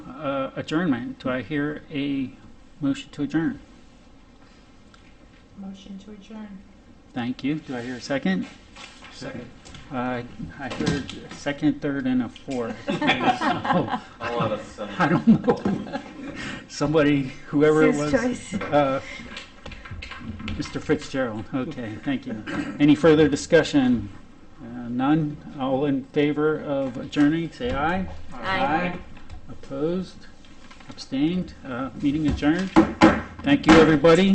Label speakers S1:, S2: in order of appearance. S1: uh, adjournment. Do I hear a motion to adjourn?
S2: Motion to adjourn.
S1: Thank you. Do I hear a second?
S3: Second.
S1: Uh, I heard a second, third, and a fourth. So,
S3: I'll let us, uh,
S1: I don't know. Somebody, whoever it was.
S4: It's his choice.
S1: Uh, Mr. Fitzgerald, okay, thank you. Any further discussion? Uh, None? All in favor of adjourning, say aye.
S4: Aye.
S1: Opposed? Abstained? Uh, Meeting adjourned. Thank you, everybody.